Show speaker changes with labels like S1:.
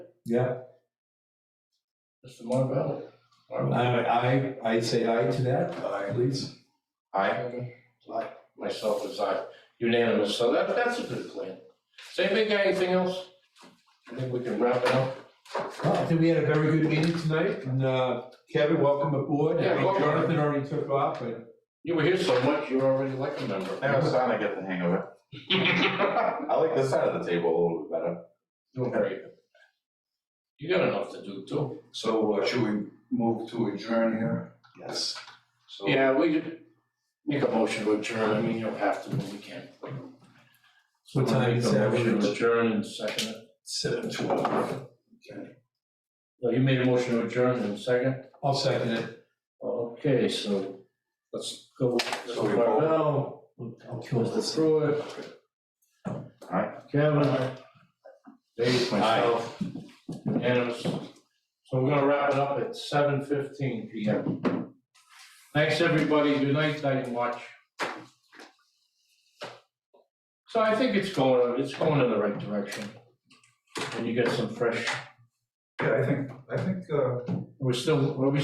S1: Yeah,
S2: Mr. Marvell? Marvell?
S1: I, I, I say aye to that, aye, please.
S2: Aye. Aye, myself is aye, unanimous, so that, that's a good plan. Say, big guy, anything else? I think we can wrap it up.
S1: Well, I think we had a very good meeting tonight, and, uh, Kevin, welcome aboard. I
S2: Yeah,
S1: think
S2: welcome.
S1: Jonathan already took off, but
S2: You were here so much, you're already like a member.
S3: Now it's time I get the hang of it. I like this side of the table a little bit better.
S2: Doing great. You got enough to do too.
S4: So uh, should we move to adjourn here?
S3: Yes.
S4: So-
S2: Yeah, we could make a motion to adjourn, I mean, you don't have to, but we can.
S1: What time is that?
S2: Make a motion to adjourn and second it.
S1: seven
S2: No, you made a motion to adjourn and second,
S1: I'll second it.
S2: okay, so let's go,
S4: So we
S2: Mr.
S4: vote.
S2: Marvell,
S1: I'll kill this.
S2: Mr. Pruitt.
S3: Aye.
S2: Kevin. Dave, myself, unanimous. So we're gonna wrap it up at seven fifteen P M. Thanks, everybody, good night, night and watch. So I think it's going, it's going in the right direction. And you get some fresh,
S4: Yeah, I think, I think, uh,
S2: we're still, we're